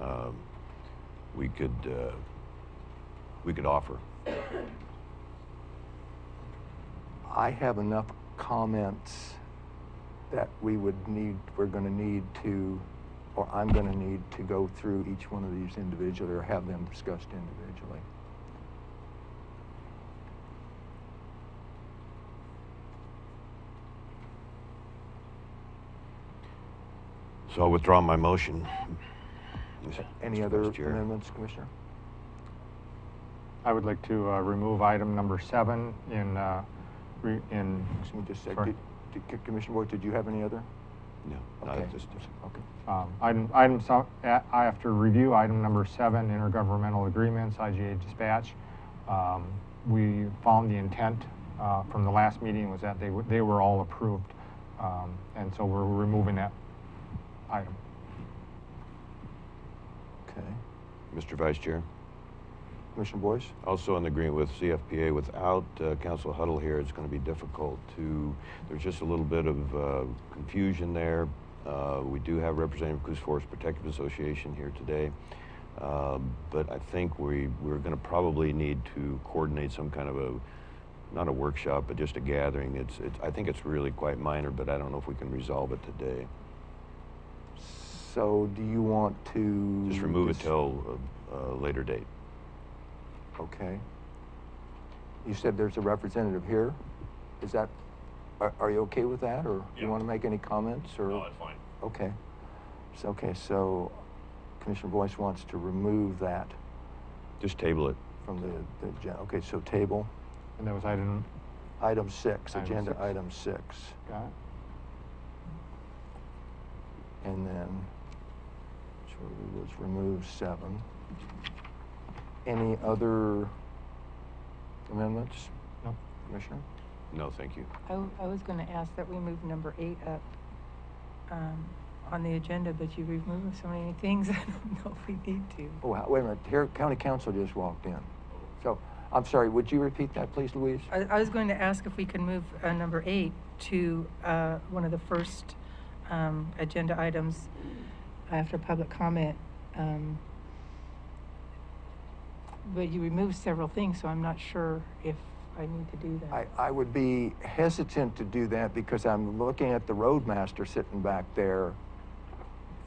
um, we could, uh, we could offer. I have enough comments that we would need, we're going to need to, or I'm going to need to go through each one of these individually or have them discussed individually. So I withdraw my motion. Any Mr. other Vice Chair. amendments, Commissioner? I would like to uh, remove item number seven in, uh, re- in, Excuse me just a sec. Sure. Did- did- C- Commissioner Boyd, did you have any other? No, not Okay. at this Okay. um, item, item, so- a- after review, item number seven, intergovernmental agreements, IGA dispatch. Um, We found the intent uh, from the last meeting was that they, were- they were all approved. Um, And so we're removing that item. Okay. Mr. Vice Chair, Commissioner Boyce? also in agreement with CFPA, without uh, Council Huddle here, it's going to be difficult to, there's just a little bit of uh, confusion there. Uh, We do have Representative Coos Forest Protective Association here today, Um, but I think we, we're going to probably need to coordinate some kind of a, not a workshop, but just a gathering. It's, it's, I think it's really quite minor, but I don't know if we can resolve it today. So do you want to? Just remove it dis- till a a later date. Okay. You said there's a representative here? Is that, are, are you okay with that, or you Yeah. want to make any comments, or? No, that's fine. Okay. So, okay, so Commissioner Boyce wants to remove that Just table it. from the, the, agen- okay, so table, And that was item, item six, Item agenda six. item six. got it? And then, so we was remove seven. Any other amendments, No? Commissioner? No, thank you. I, w- I was gonna ask that we move number eight up, um, on the agenda, but you removed so many things, I don't know if we need to. Oh, wait a minute, here, county council just walked in. So, I'm sorry, would you repeat that, please, Louise? I, I was going to ask if we can move, uh, number eight to, uh, one of the first, um, agenda items after public comment. um, But you removed several things, so I'm not sure if I need to do that. I, I would be hesitant to do that because I'm looking at the roadmaster sitting back there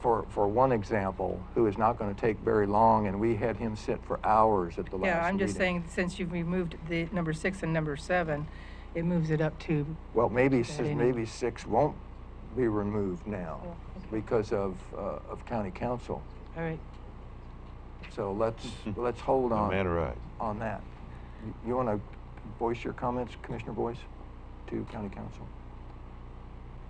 for, for one example, who is not going to take very long, and we had him sit for hours at the last meeting. Yeah, I'm just saying, since you've removed the number six and number seven, it moves it up to Well, maybe, That si- any- maybe six won't be removed now Oh, okay. because of, uh, of county council. All right, So let's, let's hold No on. matter I. On that. You- You want to voice your comments, Commissioner Boyce, to county council?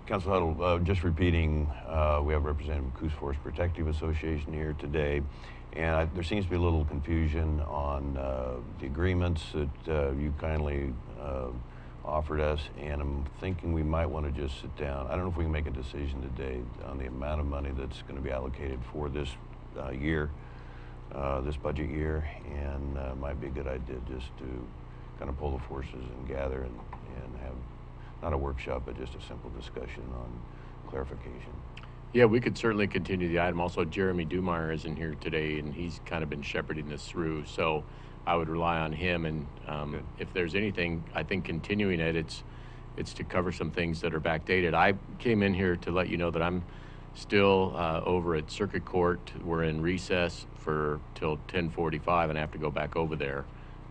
Council Huddle, uh, just repeating, uh, we have Representative Coos Forest Protective Association here today, and I, there seems to be a little confusion on uh, the agreements that uh, you kindly uh, offered us, and I'm thinking we might want to just sit down. I don't know if we can make a decision today on the amount of money that's going to be allocated for this uh, year, uh, this budget year, and uh, might be a good idea just to kind of pull the forces and gather and, and have not a workshop, but just a simple discussion on clarification. Yeah, we could certainly continue the item. Also, Jeremy Dumar isn't here today, and he's kind of been shepherding this through, so I would rely on him, and Good. um, if there's anything, I think continuing it, it's, it's to cover some things that are backdated. I came in here to let you know that I'm still uh, over at Circuit Court. We're in recess for, till 10:45, and I have to go back over there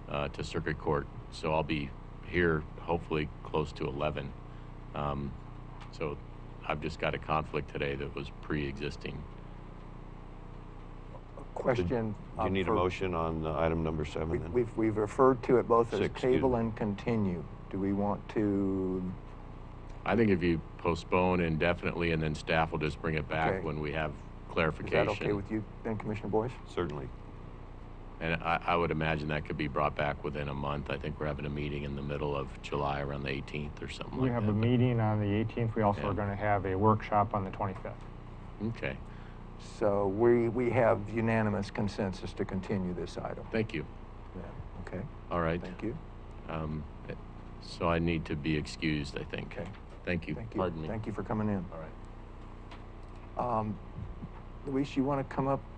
uh, to Circuit Court, so I'll be here hopefully close to 11. Um, So I've just got a conflict today that was pre-existing. Question. Do uh, you need a for- motion on uh, item number seven? We- then? We've, we've referred to it both as Six, excuse table me. and continue. Do we want to, I think if you postpone indefinitely and then staff will just bring it back Okay. when we have is clarification. that okay with you then, Commissioner Boyce? Certainly. And I, I would imagine that could be brought back within a month. I think we're having a meeting in the middle of July around the 18th or something We like that. have a but- meeting on the 18th. We also Yeah. are going to have a workshop on the 25th. Okay, So we, we have unanimous consensus to continue this item. thank you. Yeah, Okay, All right. thank you. Um, so I need to be excused, I think. Okay. Thank you. Thank you. Pardon me. Thank you for coming in. All right. Um, Luis, you want to come up